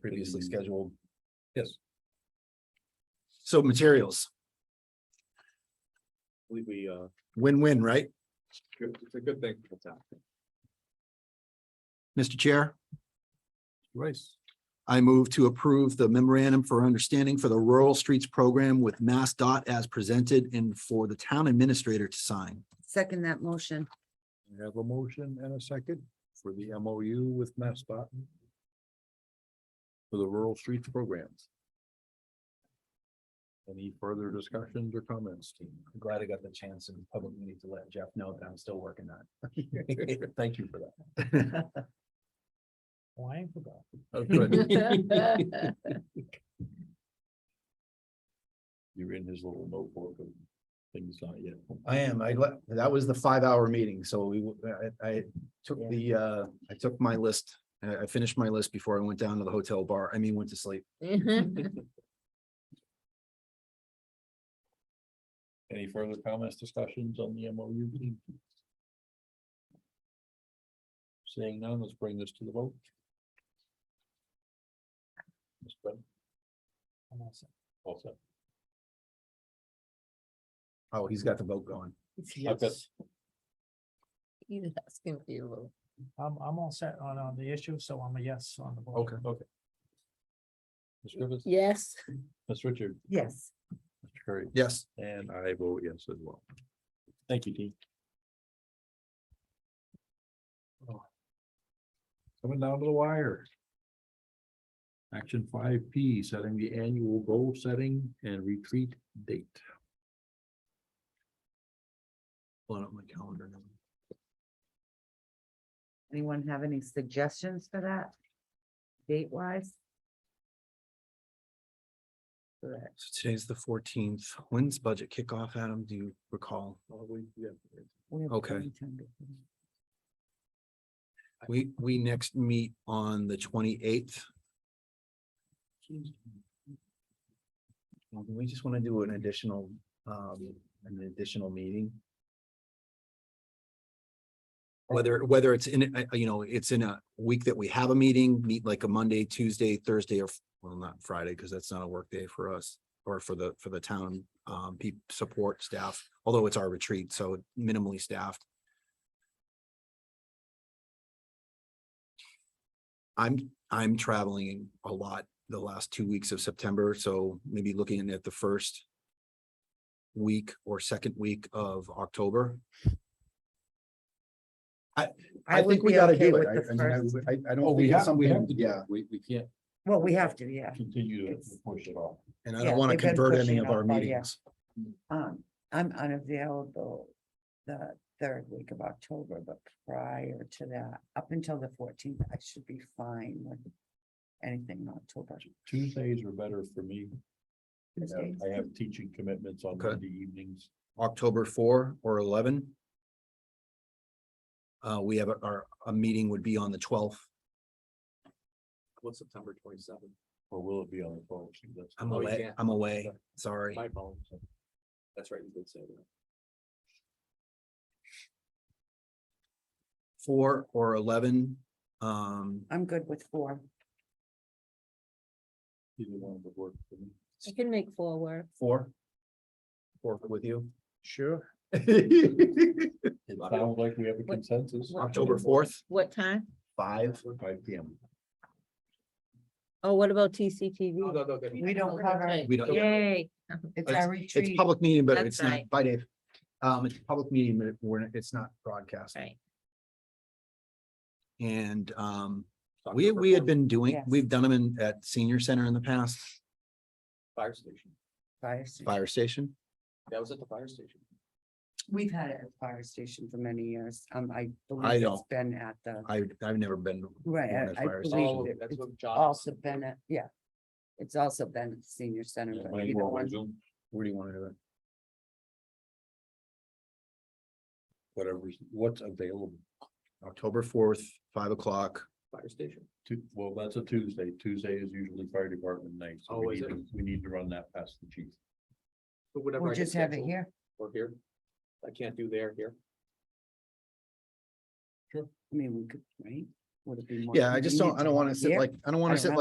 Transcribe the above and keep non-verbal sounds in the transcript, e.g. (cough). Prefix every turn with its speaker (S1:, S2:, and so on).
S1: previously scheduled.
S2: Mm. Yes.
S3: So materials,
S1: I believe we, uh,
S3: win-win, right?
S2: It's a good thing for the town.
S3: Mr. Chair,
S2: Rice.
S3: I move to approve the memorandum for understanding for the Rural Streets Program with Mass Dot as presented and for the town administrator to sign.
S4: Second that motion.
S2: We have a motion and a second for the MOU with Mass Dot. For the rural streets programs. Any further discussions or comments, team?
S1: I'm glad I got the chance in public meeting to let Jeff know that I'm still working on
S2: (laughs)
S1: it. Thank you for that. Why I forgot.
S2: Oh,
S1: (laughs)
S2: good. You're in his little notebook and things not yet.
S1: I am, I, le- that was the five hour meeting, so we, w- I, I took the, uh,
S3: I took my list, I I finished my list before I went down to the hotel bar, I mean, went to sleep.
S2: (laughs)
S4: Mm-hmm.
S2: Any further comments, discussions on the MOU? team? Seeing none, let's bring this to the vote. Ms. Bennett? All set.
S3: Oh, he's got the vote going.
S2: I've got-
S4: He's asking for your vote.
S5: I'm, I'm all set on, on the issue, so I'm a yes on the board.
S2: Okay, okay. Ms. Griffiths,
S4: Yes.
S2: Ms. Richard,
S4: Yes.
S2: Mr. Curry,
S3: Yes,
S2: and I vote yes as well. Thank you, team. Coming down to the wire. Action five P, setting the annual goal setting and retreat date.
S3: pulling up my calendar. now.
S4: Anyone have any suggestions for that? Date wise?
S3: So today's the fourteenth, when's budget kickoff, Adam, do you recall? Okay. We, we next meet on the twenty-eighth.
S1: Well, do We just want to do an additional, um, an additional meeting.
S3: Whether, whether it's in, uh, you know, it's in a week that we have a meeting, meet like a Monday, Tuesday, Thursday, or, well, not Friday, because that's not a work day for us. Or for the, for the town, um, peop support staff, although it's our retreat, so minimally staffed. I'm, I'm traveling a lot the last two weeks of September, so maybe looking at the first. Week or second week of October.
S1: I
S4: would
S1: think we
S4: be
S1: gotta
S4: okay
S1: do it.
S4: with the
S1: I- I mean, I
S4: first.
S1: would- I, I don't think it's something, yeah.
S2: Oh, We, we can't
S4: Well, we have to, yeah.
S2: continue to
S4: It's-
S2: push it off.
S3: And I
S4: Yeah,
S3: don't want to
S4: they've been
S3: convert any
S4: pushing
S3: of
S4: off
S3: our
S4: all year.
S3: meetings.
S4: Um, I'm unavailable the third week of October, but prior to that, up until the fourteenth, I should be fine with anything in October.
S2: Tuesdays are better for me. I have-
S4: Tuesdays.
S2: I have teaching commitments on
S3: Okay.
S2: Monday evenings.
S3: October four or eleven. Uh, we have, a- our, a meeting would be on the twelfth.
S1: What's September twenty-seventh?
S2: Or will it be on the twelfth? That's-
S3: I'm
S1: Oh, you
S3: away,
S1: can't.
S3: I'm away, sorry.
S1: phone. That's right, you did say that.
S3: Four or eleven, um,
S4: I'm good with four.
S2: Either one would work for me.
S6: I can make four work.
S3: four. Four with you,
S1: Sure.
S2: (laughs) It sounds like we have a
S6: What-
S2: consensus.
S3: October fourth,
S6: What time?
S1: Five.
S2: Five P M.
S6: Oh, what about TCTV?
S4: We don't cover,
S3: we don't,
S6: Yay.
S4: it's our
S3: it's
S4: retreat.
S3: public meeting, but
S6: That's
S3: it's not,
S6: right.
S3: by Dave. Um, it's a public meeting, but we're, it's not broadcast.
S6: Right.
S3: And, um, we, we had been doing,
S4: Yes.
S3: we've done them in, at senior center in the past,
S1: Fire station.
S4: fire station.
S3: fire station.
S1: That was at the fire station.
S4: We've had it at fire station for many years. Um, I
S3: I
S4: believe it's
S3: don't-
S4: been at the,
S3: I, I've never been,
S4: right,
S3: at
S4: I- I
S3: fire
S4: believe it- it's also been at, yeah. It's also been at the senior center, but either one,
S3: where do you want to do it?
S2: Whatever's, what's available
S3: October fourth, five o'clock.
S1: Fire station.
S2: to, well, that's a Tuesday. Tuesday is usually fire department night. so we
S1: Oh, is
S2: need
S1: it?
S2: to- We need to run that past the chief.
S1: But whatever.
S4: we'll just have it here.
S1: Or here. I can't do there, here.
S4: I mean, we could, right? Would it be more
S3: Yeah, I just don't, I don't
S4: convenient
S3: want to sit
S4: here?
S3: like, I don't want
S4: I
S3: to sit
S4: don't